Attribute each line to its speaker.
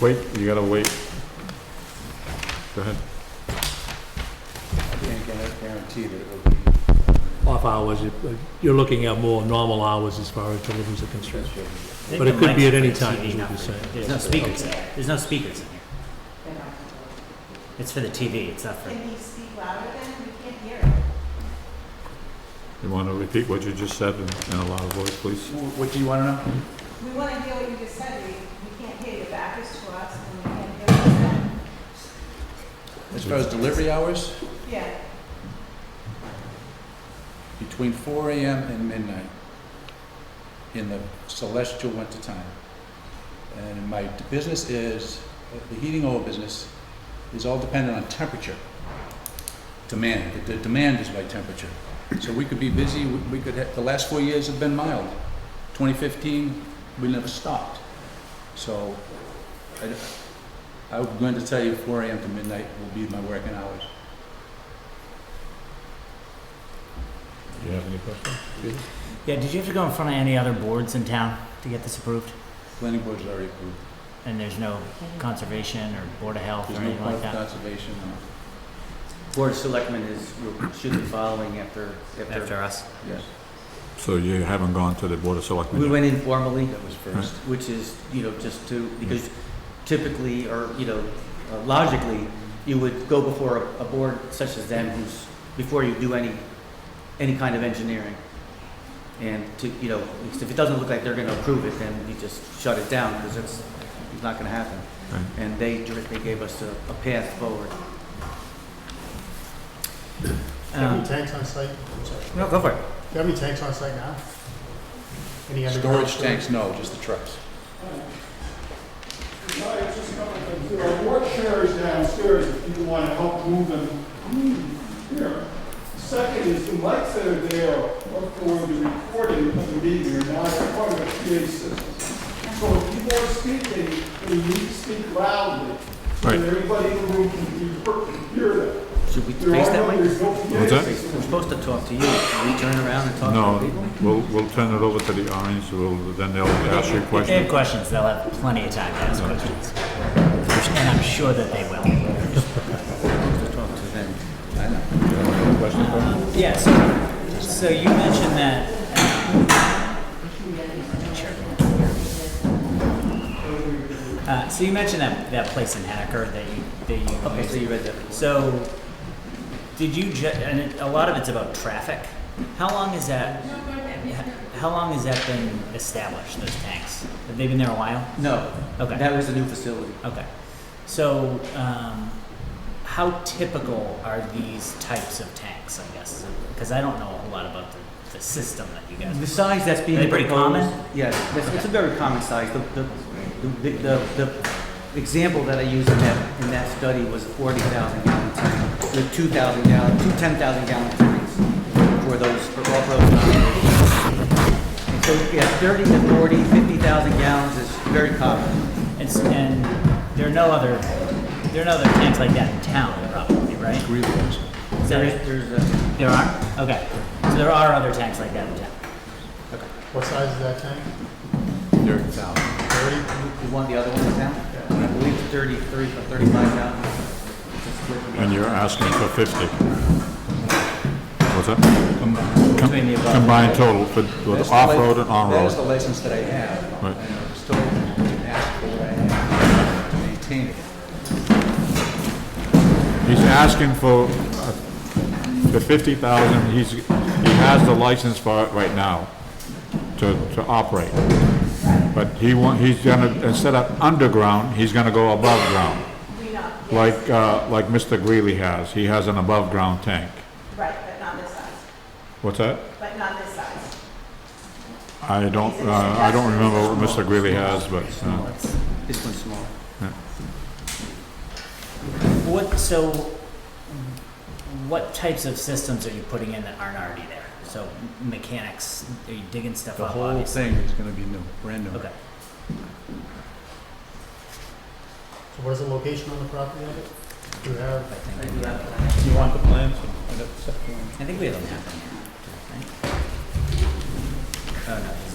Speaker 1: Wait, you gotta wait. Go ahead.
Speaker 2: I can't guar- guarantee that it will be.
Speaker 3: off hours, you- you're looking at more normal hours as far as deliveries are concerned.
Speaker 2: That's
Speaker 3: But it could be at any
Speaker 4: It's a
Speaker 3: time,
Speaker 4: TV
Speaker 3: is what
Speaker 4: number.
Speaker 3: you're saying.
Speaker 4: There's no speakers, in there. there's no speakers in here. It's for the TV, it's not for,
Speaker 5: Can you speak louder then? We can't hear it.
Speaker 1: You wanna repeat what you just said in in a loud voice, please?
Speaker 2: what- What do you want to know?
Speaker 5: We want to hear what you just said. We, we can't hear. Your back is to us and we can't hear what you
Speaker 2: As far as delivery hours,
Speaker 5: said. Yeah.
Speaker 2: between four AM and midnight in the celestial winter time. And my business is, the heating oil business is all dependent on temperature. Demand, the the demand is by temperature. So we could be busy, we- we could, ha- the last four years have been mild. 2015, we never stopped. So I, d- I'm going to tell you four AM to midnight will be my working hours.
Speaker 1: Do you have any questions?
Speaker 4: yeah, did you have to go in front of any other boards in town to get this approved?
Speaker 2: Planning board's already approved.
Speaker 4: And there's no conservation or board of health or
Speaker 2: There's no
Speaker 4: anything like
Speaker 2: point of
Speaker 4: that?
Speaker 2: conservation, no.
Speaker 6: Board of Selectmen is, should be following after, after.
Speaker 4: After us?
Speaker 2: Yes,
Speaker 1: So you haven't gone to the Board of Selectmen?
Speaker 6: We
Speaker 1: yet?
Speaker 6: went in formally,
Speaker 2: that was first.
Speaker 6: which is, you know, just to, because typically, or, you know, uh, logically, you would go before a, a board such as them who's, before you do any, any kind of engineering. And to, you know, because if it doesn't look like they're gonna approve it, then you just shut it down, because it's, it's not gonna happen.
Speaker 1: Right.
Speaker 6: And they, dir- they gave us a, a path forward.
Speaker 7: Do you have any
Speaker 4: Um,
Speaker 7: tanks on site? I'm sorry.
Speaker 4: No, go for it.
Speaker 7: Do you have any tanks on site now? Any underground
Speaker 2: Storage tanks, no, just the trucks.
Speaker 8: There are more chairs downstairs if you want to help move them here. Second is the mics that are there are for the recording of the meeting, are not part of the PA system. So if people are speaking, they need to speak loudly. so that
Speaker 1: Right.
Speaker 8: Everybody in the room can be heard- hear them.
Speaker 6: Should we
Speaker 8: There
Speaker 6: face
Speaker 8: are
Speaker 6: that
Speaker 8: no-
Speaker 6: way?
Speaker 8: There's no PA
Speaker 1: What's that?
Speaker 8: system.
Speaker 6: We're supposed to talk to you. Can we turn around and talk to the people?
Speaker 1: No, we'll, we'll turn it over to the Orange, we'll, then they'll ask you
Speaker 4: If they have
Speaker 1: questions.
Speaker 4: questions, they'll have plenty of time to ask questions. And I'm sure that they will.
Speaker 2: Talk to them. I know.
Speaker 4: Yeah, so, so you mentioned that. um, sure. Uh, so you mentioned that, that place in Henniker that you, that you.
Speaker 6: Okay, so you read that.
Speaker 4: So, did you ju- and it, a lot of it's about traffic. How long is that, how long has that been established, those tanks? Have they been there a while?
Speaker 6: No.
Speaker 4: Okay.
Speaker 6: That was a new facility.
Speaker 4: Okay. So, um, how typical are these types of tanks, I guess? Because I don't know a whole lot about the, the system that you guys.
Speaker 6: The size that's being
Speaker 4: Are they pretty
Speaker 6: proposed-
Speaker 4: common?
Speaker 6: Yes, that's- it's a very common size. The, the, the, the, the example that I used in that, in that study was a forty thousand gallon tank with two thousand gallon, two ten thousand gallon tanks for those, for all those. operations. And so, yeah, thirty to forty, fifty thousand gallons is very common.
Speaker 4: And, s- and there are no other, there are no other tanks like that in town, probably, right?
Speaker 2: Greenways.
Speaker 4: Is that
Speaker 6: There's,
Speaker 4: it?
Speaker 6: there's a,
Speaker 4: There are? Okay. So there are other tanks like that in town.
Speaker 7: What size is that tank?
Speaker 2: Thirty thousand.
Speaker 7: Thirty?
Speaker 6: you want the other one to count? I believe it's thirty-three or thirty-five thousand. It's a split.
Speaker 1: And you're asking for 50. What's that? Com- com-
Speaker 4: Between the above-
Speaker 1: Combined total for, with off-road and
Speaker 2: That is the
Speaker 1: on-road.
Speaker 2: license that I have.
Speaker 1: Right.
Speaker 2: And I'm still asking what I have to maintain it.
Speaker 1: He's asking for uh, the 50,000, he's, he has the license for it right now to, to operate. But he want, he's gonna, instead of underground, he's gonna go above ground,
Speaker 5: We not, yes.
Speaker 1: like, uh, like Mr. Greeley has. He has an above-ground tank.
Speaker 5: Right, but not this size.
Speaker 1: What's that?
Speaker 5: But not this size.
Speaker 1: I don't, uh, I don't remember what Mr. Greeley has, but, uh,
Speaker 6: This one's small.
Speaker 4: What, so, what types of systems are you putting in that aren't already there? So mechanics, are you digging stuff
Speaker 2: The
Speaker 4: up,
Speaker 2: whole
Speaker 4: obviously?
Speaker 2: thing is gonna be new, brand new.
Speaker 4: Okay.
Speaker 7: So what is the location on the property of it? Do you have,
Speaker 4: I think we have-
Speaker 2: You want the plans?
Speaker 4: I think we have a map on here. Oh, no, this